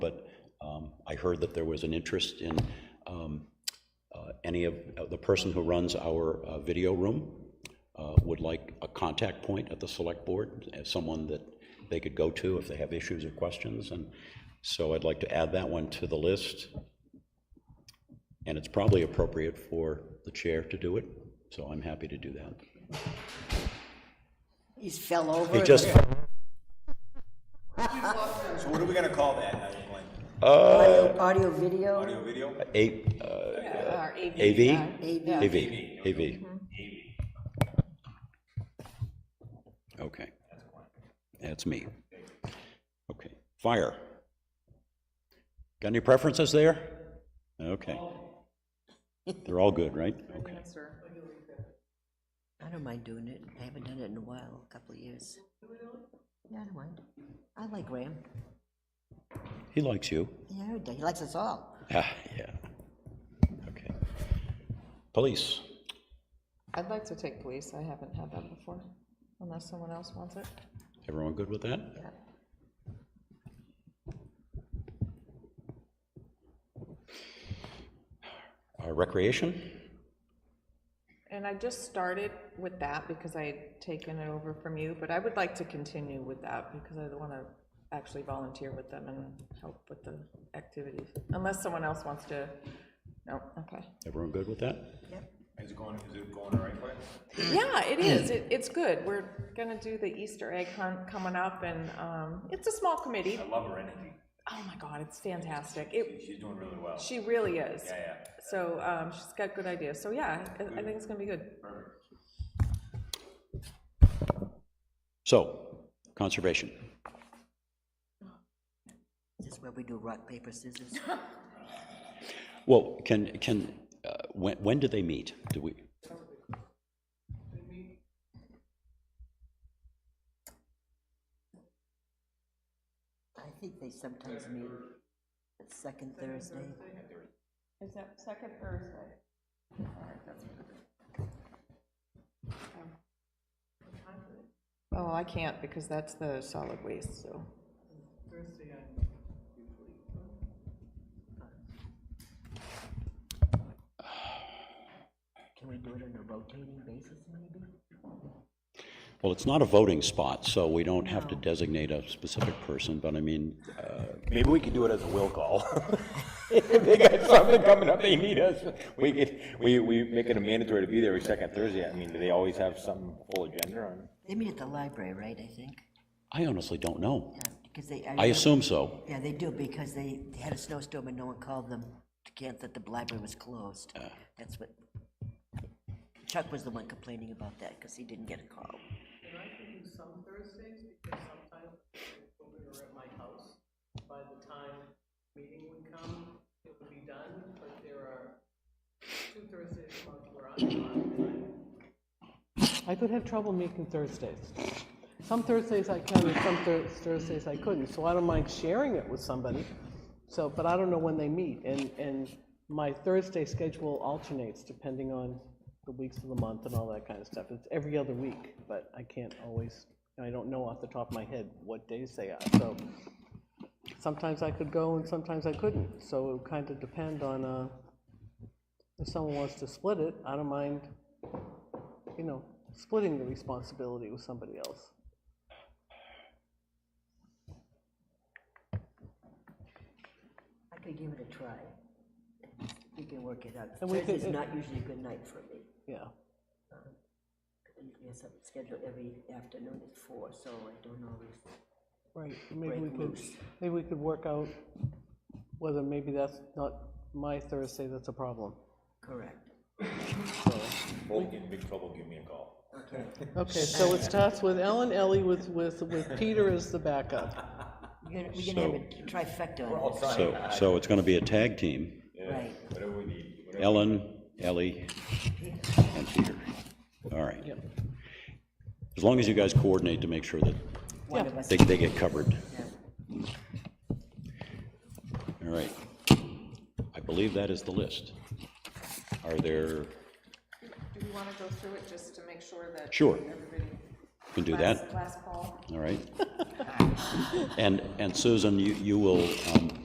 um, heard that there was an interest in um, uh, any of, uh, the person who runs our uh, video room uh, would like a contact point at the select board, as someone that they could go to if they have issues or questions, and so I'd like to add that one to the list. And it's probably appropriate for the chair to do it, so I'm happy to do that. He's fell over. It just, So what are we gonna call that, I think, like, Audio, audio, video, audio, video? uh, A, uh, Our AV? AV, AV. AV. Okay. That's me. Okay, fire. Got any preferences there? Okay. They're all good, right? Okay. I don't mind doing it. I haven't done it in a while, a couple of years. Yeah, I don't mind. I like Graham. He likes you. Yeah, he likes us all. Ah, yeah. Okay. Police, I'd like to take police, I haven't had that before, unless someone else wants it. everyone good with that? Yeah. Uh, Recreation? And I just started with that because I had taken it over from you, but I would like to continue with that because I want to actually volunteer with them and help with the activities, unless someone else wants to, no, okay. Everyone good with that? Is it going, is it going all right for you? Yeah, it is. It, it's good. We're gonna do the Easter egg hunt coming up, and um, it's a small committee. I love her energy. Oh my God, it's fantastic. It, She's doing really well. she really is. Yeah, yeah. So um, she's got good ideas. So yeah, I, I think it's gonna be good. So, conservation. This is where we do rock, paper, scissors. Well, can, can, uh, when, when do they meet? Do we, I think they sometimes meet the second Thursday. Is that second Thursday? Oh, I can't because that's the solid waste, so. Can we do it on a rotating basis, maybe? well, it's not a voting spot, so we don't have to designate a specific person, but I mean, uh, Maybe we could do it as a will call. If they got something coming up, they need us. We could, we, we make it a mandatory to be there every second Thursday. I mean, do they always have some full agenda on? They meet at the library, right, I think? I honestly don't know. Yeah, because they. I assume so. Yeah, they do, because they they had a snowstorm and no one called them to cancel that the library was closed. That's what, Chuck was the one complaining about that, because he didn't get a call. And I can do some Thursdays because sometimes when we were at my house, by the time meeting would come, it would be done, but there are two Thursdays a month where I'm on. I could have trouble making Thursdays. Some Thursdays I can, and some Thur- Thursdays I couldn't, so I don't mind sharing it with somebody. So, but I don't know when they meet, and, and my Thursday schedule alternates depending on the weeks of the month and all that kind of stuff. It's every other week, but I can't always, and I don't know off the top of my head what days they are, so sometimes I could go and sometimes I couldn't, so it would kind of depend on, uh, if someone wants to split it, I don't mind, you know, splitting the responsibility with somebody else. I could give it a try. We can work it out. And we could- Thursday's not usually a good night for me. Yeah, I usually have something scheduled every afternoon at four, so I don't always. right, maybe we Break could, loose. maybe we could work out whether maybe that's not my Thursday that's a problem. Correct. Well, you get in big trouble, give me a call. Okay. Okay, so it starts with Ellen Ellie with, with, with Peter as the backup. We're gonna, we're gonna have a trifecta on So, so it's going to be a tag team. this, right? Whatever we need, whatever. Ellen, Ellie, and Peter. All right. As long as you guys coordinate to make sure that One of us. they, they get covered. yeah. All right. I believe that is the list. Are there, Do we want to go through it just to make sure that? Sure. Everybody. can do that? Last call. All right. And, and Susan, you, you will um,